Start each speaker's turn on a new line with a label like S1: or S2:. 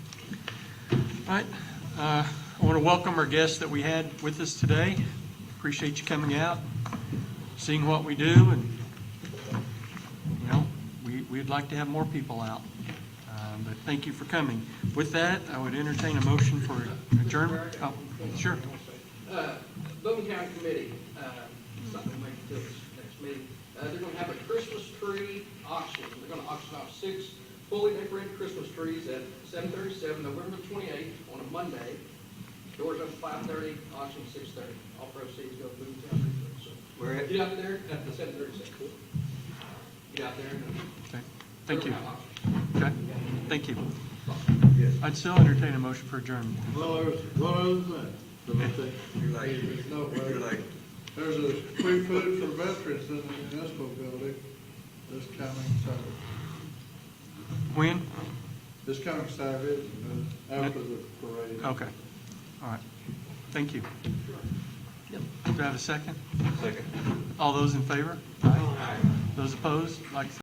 S1: All right, uh, I want to welcome our guests that we had with us today. Appreciate you coming out, seeing what we do, and, you know, we, we'd like to have more people out. Um, But thank you for coming. With that, I would entertain a motion for adjournment. Oh, Sure.
S2: Uh, Bowman County Committee, uh, something we can do this next meeting. Uh, They're going to have a Christmas tree auction. They're going to auction off six fully decorated Christmas trees at 7:37, November 28th, on a Monday. Doors open 5:30, auction 6:30. All proceeds go to Boone County. So
S3: Where at?
S2: Get out there at the 7:37. Get out there and.
S1: Okay. Thank you.
S2: They're gonna have auction.
S1: Okay, thank you.
S3: Yes.
S1: I'd still entertain a motion for adjournment.
S4: Well, there's one other thing, that I think,
S3: You're like,
S4: no,
S3: you're like,
S4: there's a free food for veterans in the municipal building this coming Saturday.
S1: When?
S4: This coming Saturday, uh, after the parade.
S1: Okay, all right. Thank you. Do I have a second?
S3: second.
S1: All those in favor? Those opposed, like